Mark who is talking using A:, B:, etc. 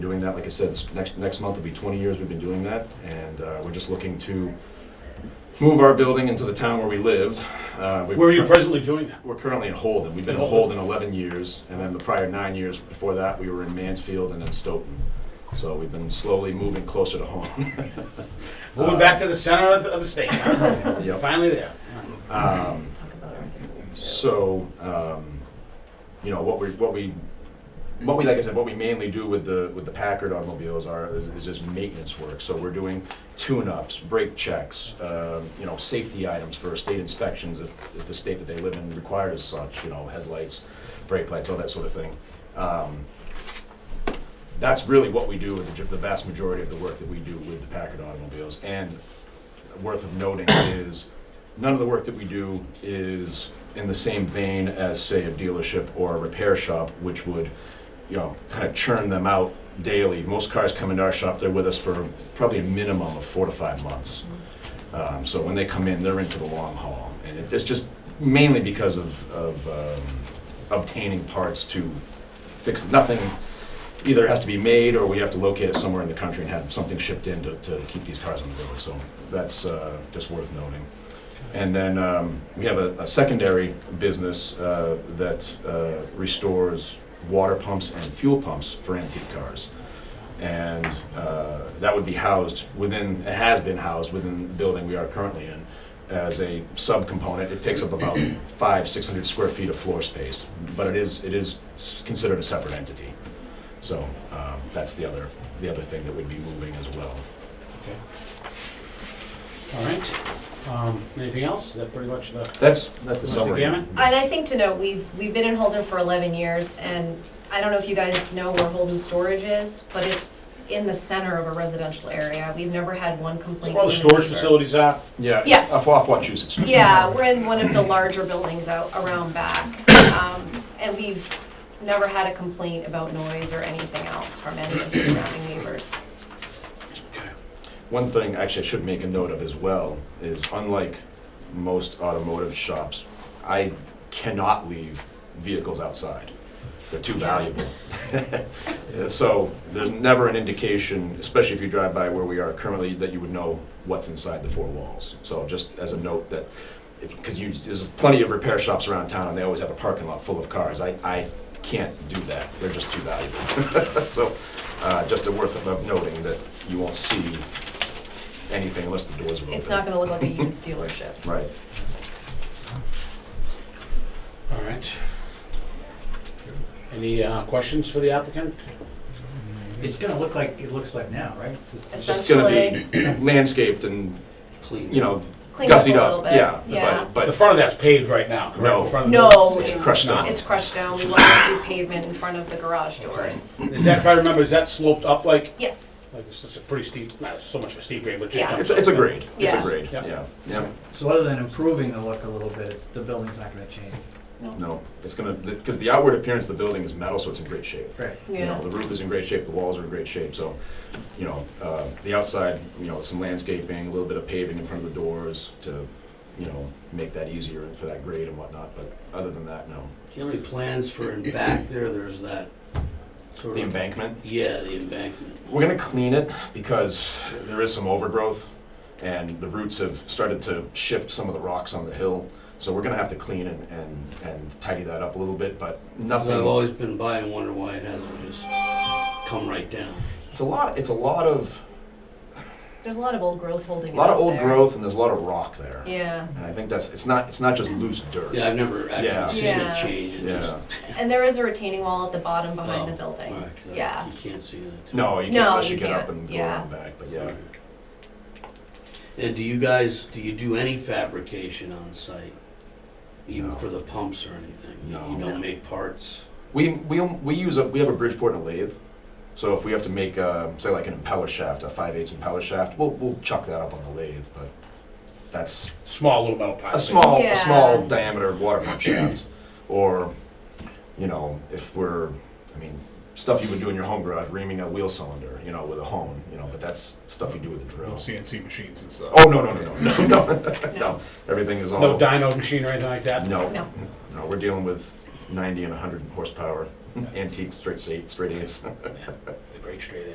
A: doing that, like I said, this next, next month will be 20 years we've been doing that, and uh, we're just looking to move our building into the town where we lived. Uh, we've
B: Where are you
A: cur-
B: presently doing that?
A: We're currently in Holden, we've been in
B: In
A: Holden 11 years, and then the prior nine years before that, we were in Mansfield and then Stoughton. So we've been slowly moving closer to home.
B: Moving back to the center of the, of the state.
A: Uh, Yep.
B: Finally there.
A: Um,
C: talk about Arthur.
A: So, um, you know, what we, what we, what we, like I said, what we mainly do with the, with the Packard automobiles are, is is just maintenance work. So we're doing tune-ups, brake checks, um, you know, safety items for state inspections if, if the state that they live in requires such, you know, headlights, brake lights, all that sort of thing. Um, That's really what we do with the, the vast majority of the work that we do with the Packard automobiles. And worth of noting is none of the work that we do is in the same vein as, say, a dealership or a repair shop, which would, you know, kind of churn them out daily. Most cars come into our shop, they're with us for probably a minimum of four to five months. Um, so when they come in, they're in for the long haul. And it- it's just mainly because of, of um, obtaining parts to fix nothing. Either has to be made or we have to locate it somewhere in the country and have something shipped in to, to keep these cars on the road. So that's uh, just worth noting. And then um, we have a, a secondary business uh, that uh, restores water pumps and fuel pumps for antique cars. And uh, that would be housed within, it has been housed within the building we are currently in as a subcomponent. It takes up about five, 600 square feet of floor space, but it is, it is s- considered a separate entity. So um, that's the other, the other thing that would be moving as well.
B: Okay. All right. Um, anything else? Is that pretty much the?
A: That's, that's the
B: Mr.
A: summary.
B: Gammon?
C: And I think to note, we've, we've been in Holden for 11 years, and I don't know if you guys know where Holden Storage is, but it's in the center of a residential area. We've never had one complaint.
B: Well, the
C: from an
B: storage
C: neighbor.
B: facilities are.
A: Yeah, it's
C: Yes.
A: off off Wachusett Street.
C: Yeah, we're in one of the larger buildings out around back, um, and we've never had a complaint about noise or anything else from any of the surrounding neighbors.
A: One thing, actually, I should make a note of as well, is unlike most automotive shops, I cannot leave vehicles outside. They're too valuable. Uh, So there's never an indication, especially if you drive by where we are currently, that you would know what's inside the four walls. So just as a note that, because you, there's plenty of repair shops around town, and they always have a parking lot full of cars. I, I can't do that. They're just too valuable. So uh, just a worth of noting that you won't see anything unless the doors are open.
C: It's not gonna look like a used dealership.
A: Right.
B: All right. Any uh, questions for the applicant?
D: It's gonna look like it looks like now, right? Just-
C: It's
A: It's gonna be landscaped and,
D: Clean.
A: you know,
C: Clean up a
A: gussied
C: little
A: up,
C: bit,
A: yeah.
C: yeah.
A: But,
B: The
A: but
B: front of that's paved right now, correct?
A: No.
B: The front of the
C: No,
B: building.
C: it's,
A: crushed down.
C: it's crushed down. We want to do pavement in front of the garage doors.
B: Is that, if I remember, is that sloped up like,
C: Yes,
B: like it's it's a pretty steep, not so much of a steep grade, but
C: Yeah.
B: just.
A: it's, it's a grade, it's a
C: Yeah.
A: grade,
B: Yeah.
A: yeah, yeah.
D: So other than improving the look a little bit, it's, the building's not gonna change.
A: No, it's gonna, because the outward appearance of the building is metal, so it's in great shape.
D: Right.
A: You know,
C: yeah.
A: the roof is in great shape, the walls are in great shape, so, you know, uh, the outside, you know, some landscaping, a little bit of paving in front of the doors to, you know, make that easier for that grade and whatnot, but other than that, no.
E: Do you have any plans for in back there, there's that sort of.
A: The embankment,
E: Yeah, the embankment.
A: We're gonna clean it because there is some overgrowth and the roots have started to shift some of the rocks on the hill. So we're gonna have to clean and, and, and tidy that up a little bit, but
E: 'Cause I've
A: nothing,
E: always been by and wondered why it hasn't just come right down.
A: it's a lot, it's a lot of,
C: There's a lot of old growth
A: a
C: holding
A: lot of
C: up
A: old
C: there.
A: growth and there's a lot of rock there.
C: Yeah,
A: And I think that's, it's not, it's not just loose dirt.
E: Yeah, I've never
A: Yeah.
E: actually seen
C: Yeah.
E: it change, it just.
A: Yeah,
C: and there is a retaining wall at the bottom behind the
E: Oh,
C: building.
E: alright, 'cause I-
C: Yeah.
E: You can't see that.
A: no, you can't
C: No,
A: unless
C: you
A: you get up
C: can't.
A: and go
C: Yeah.
A: around back, but yeah.
E: And do you guys, do you do any fabrication on site? Even
A: No.
E: for the pumps or anything? You-
A: No.
E: You
C: No.
E: don't make parts?
A: We, we, we use a, we have a Bridgeport and a lathe, so if we have to make, uh, say like an impeller shaft, a five eighths impeller shaft, we'll, we'll chuck that up on the lathe, but that's
B: Small little metal pipe.
A: a small,
C: Yeah.
A: a small diameter water pump shaft, or, you know, if we're, I mean, stuff you would do in your home garage, reaming a wheel cylinder, you know, with a hone, you know, but that's stuff you do with a
F: No
A: drill.
F: CNC machines and stuff.
A: Oh, no, no, no, no, no, no, no, everything is all.
B: No dyno machine or anything like that?
A: No,
C: No.
A: no, we're dealing with ninety and hundred horsepower antique straight eight, straight eights.
B: The great brake straight edge.